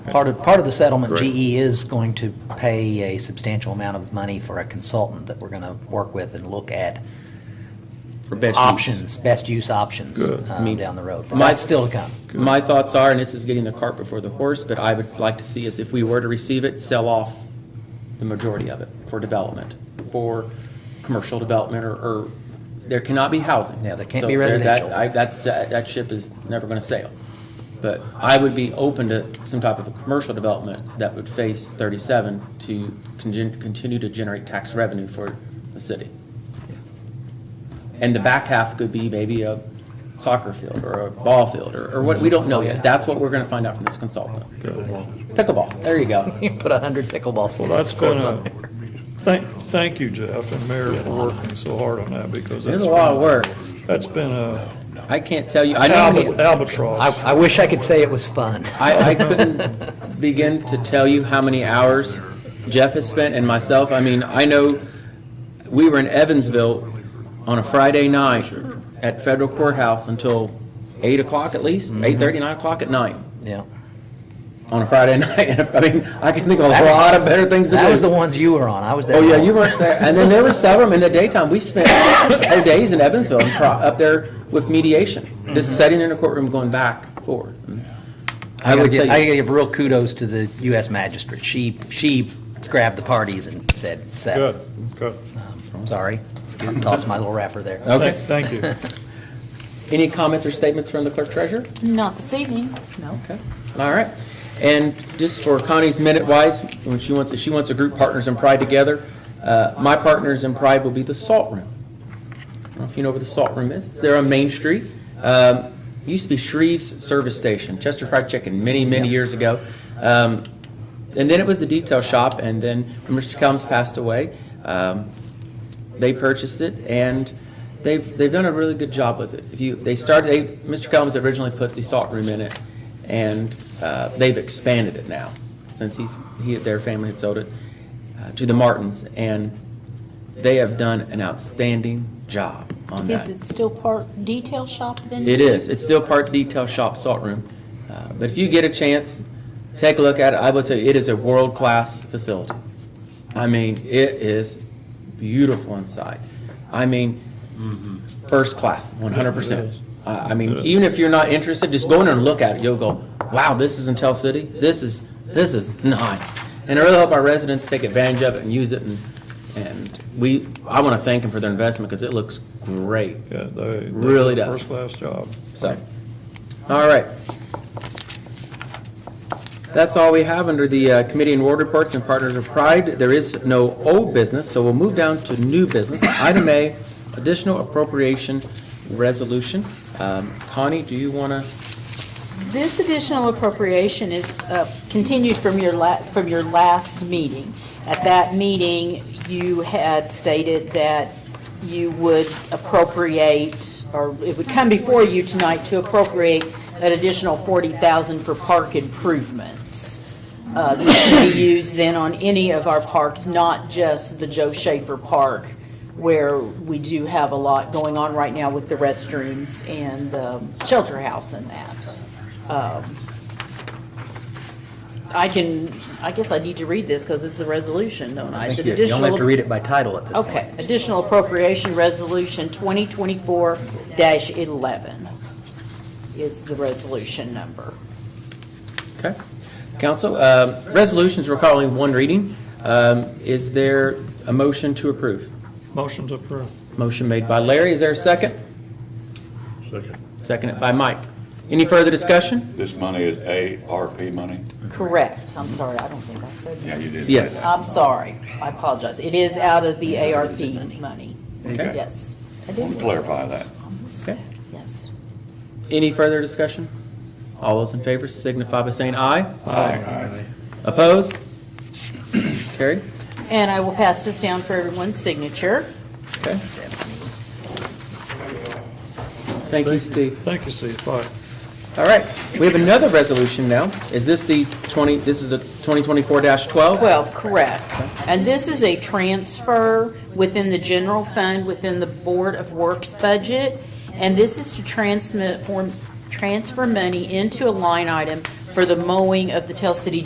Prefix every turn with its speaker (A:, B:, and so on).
A: Part of, part of the settlement,
B: Correct.
A: GE is going to pay a substantial amount of money for a consultant that we're going to work with and look at
C: for best use.
A: options, best use options
B: Good.
A: uh,
C: I mean,
A: down the road.
C: my-
A: That's still to come.
C: My thoughts are, and this is getting the cart before the horse, but I would like to see is if we were to receive it, sell off the majority of it for development, for commercial development or, or, there cannot be housing.
A: Yeah, there can't
C: So
A: be
C: there- that-
A: residential.
C: I, that's, uh, that ship is never gonna sail. But I would be open to some type of a commercial development that would phase thirty-seven to congen- continue to generate tax revenue for the city. And the back half could be maybe a soccer field or a ball field or, or what, we don't know yet. That's what we're gonna find out from this consultant. Pickleball, there you go.
A: You put 100 pickleball
B: Well,
A: fields.
B: that's going
A: on
B: to,
A: there.
B: thank, thank you, Jeff and Mayor for working so hard on that because
C: There's
B: that's
C: a lot of
B: been,
C: work.
B: that's been a
C: I can't tell you, I know,
B: alba-
C: me-
A: I,
B: albatross.
A: I wish I could say it was fun.
C: I, I couldn't begin to tell you how many hours Jeff has spent and myself. I mean, I know we were in Evansville on a Friday night at Federal Courthouse until eight o'clock at least,
A: Mm-hmm.
C: eight thirty, nine o'clock at night,
A: Yeah.
C: on a Friday night. I mean, I can think of a
A: That was-
C: lot of better things to do.
A: That was the ones you were on. I was there.
C: Oh, yeah, you weren't there. And then there were several in the daytime. We spent whole days in Evansville and tro- up there with mediation, just sitting in a courtroom going back and forth.
A: I
C: I
A: gotta
C: would
A: give, Mm-hmm. I
C: tell
A: gotta
C: you,
A: give real kudos to the US magistrate. She, she grabbed the parties and said,
B: Good,
A: "Settle."
B: good.
A: Sorry, tossed my little wrapper
C: Oh,
A: there.
B: Thank-
C: okay.
B: Thank you.
C: Any comments or statements from the clerk treasurer?
D: Not this evening, no.
C: Okay, all right. And just for Connie's minute wise, when she wants, she wants a group Partners in Pride together, uh, my Partners in Pride will be the Salt Room. I don't know if you know where the Salt Room is. It's there on Main Street. Um, Used to be Shreve's Service Station, Chester Fried Chicken, many, many years ago. Um, And then it was the detail shop, and then when Mr. Combs passed away, um, they purchased it, and they've, they've done a really good job with it. If you, they started, they, Mr. Combs originally put the salt room in it, and uh, they've expanded it now, since he's, he, their family had sold it uh, to the Martins, and they have done an outstanding job on that.
D: Is it still part detail shop then?
C: It
D: too?
C: is. It's still part detail shop salt room. Uh, But if you get a chance, take a look at it. I will tell you, it is a world-class facility. I mean, it is beautiful inside. I mean, first class, one hundred percent. I, I mean, even if you're not interested, just go in there and look at it. You'll go, wow, this is Intel City. This is, this is nice. And I really hope our residents take advantage of it and use it and, and we, I want to thank them for their investment because it looks great.
B: Yeah, they. they-
C: Really does.
B: First class job.
C: So, all right. That's all we have under the uh, Committee and Ward Reports and Partners of Pride. There is no old business, so we'll move down to new business. Item A, additional appropriation resolution. Um, Connie, do you want to?
D: This additional appropriation is uh, continued from your la, from your last meeting. At that meeting, you had stated that you would appropriate, or it would come before you tonight to appropriate an additional forty thousand for park improvements. Uh, This can be used then on any of our parks, not just the Joe Schaefer Park, where we do have a lot going on right now with the restrooms and the shelter house and that. Um, I can, I guess I need to read this because it's a resolution, don't I? It's an
A: You only have to
D: additional-
A: read it by title at this point.
D: Okay, additional appropriation resolution 2024-11 is the resolution number.
C: Okay. Council, um, resolutions recalling one reading. Um, Is there a motion to approve?
B: Motion to approve.
C: Motion made by Larry. Is there a second?
E: Second.
C: Seconded by Mike. Any further discussion?
F: This money is ARP money?
D: Correct, I'm sorry, I don't think I said that.
F: Yeah, you did.
C: Yes.
D: I'm sorry, I apologize. It is out of the ARP money.
C: Okay.
D: Yes. I
F: Want
D: did
F: to clarify that.
C: Okay.
D: Yes.
C: Any further discussion? All those in favor signify by saying aye. Aye. Opposed? Carried.
D: And I will pass this down for everyone's signature.
C: Okay. Thank you, Steve.
B: Thank you, Steve. Bye.
C: All right, we have another resolution now. Is this the 20, this is a 2024-12?
D: 12, correct. And this is a transfer within the general fund, within the Board of Works budget. And this is to transmit, form, transfer money into a line item for the mowing of the Tell City